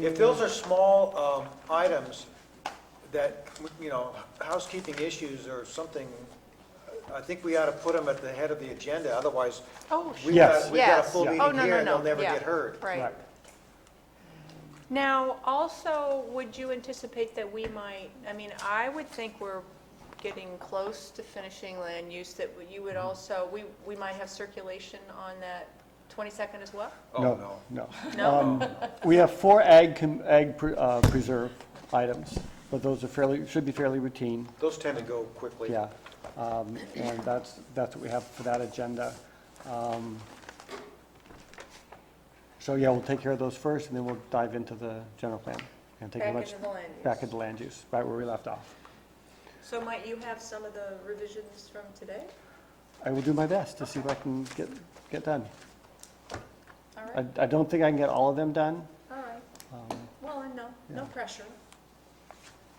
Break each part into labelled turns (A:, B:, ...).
A: If those are small um, items that, you know, housekeeping issues or something, I think we ought to put them at the head of the agenda, otherwise,
B: Oh,
A: we've
B: sure.
A: got, we've got a
B: Yes.
A: full
B: Yeah.
A: meeting
B: Oh, no,
A: here
B: no,
A: and
B: no.
A: they'll never
B: Yeah.
A: get heard.
B: Right. Now, also, would you anticipate that we might, I mean, I would think we're getting close to finishing land use, that you would also, we, we might have circulation on that 22nd as well?
A: Oh, no.
C: No. Um,
B: No?
C: We have four ag, com- ag pre- uh, preserve items, but those are fairly, should be fairly routine,
A: Those tend to go quickly.
C: yeah. Um, And that's, that's what we have for that agenda. Um, So, yeah, we'll take care of those first, and then we'll dive into the general plan. and take a
B: Back
C: much-
B: into the land use.
C: Back into land use, right where we left off.
B: So might you have some of the revisions from today?
C: I will do my best to see if I can get, get done.
B: All
C: I,
B: right,
C: I don't think I can get all of them done.
B: all right.
C: Um,
B: Well, and no, no pressure,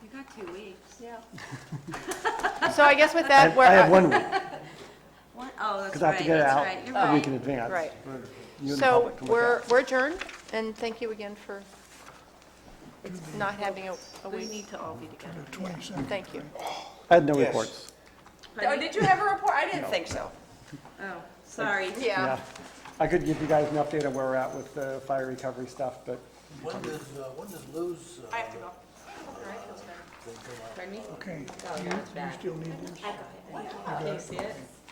D: You got two weeks.
B: yeah. So I guess with that,
C: I
B: we're.
C: I have one week,
D: What? Oh, that's
C: because I have to
D: right,
C: get it
D: that's
C: out Oh.
D: right, you're
C: a week in
D: right.
C: advance.
B: Right.
C: for you and the
B: So
C: public to look
B: we're,
C: at.
B: we're adjourned, and thank you again for not having a, a
D: We
B: week.
D: need to all be together.
B: Thank you.
C: I had no
A: Yes.
C: reports.
B: Oh, did you have a report? I didn't think so.
D: Oh, sorry.
C: Yeah.
B: Yeah.
C: I could give you guys an update on where we're at with the fire recovery stuff, but
E: When does, uh, when does Lou's? uh,
B: I have to go.
E: thing come out?
D: Pardon me?
F: Okay, you you still need this?
D: Can you see it?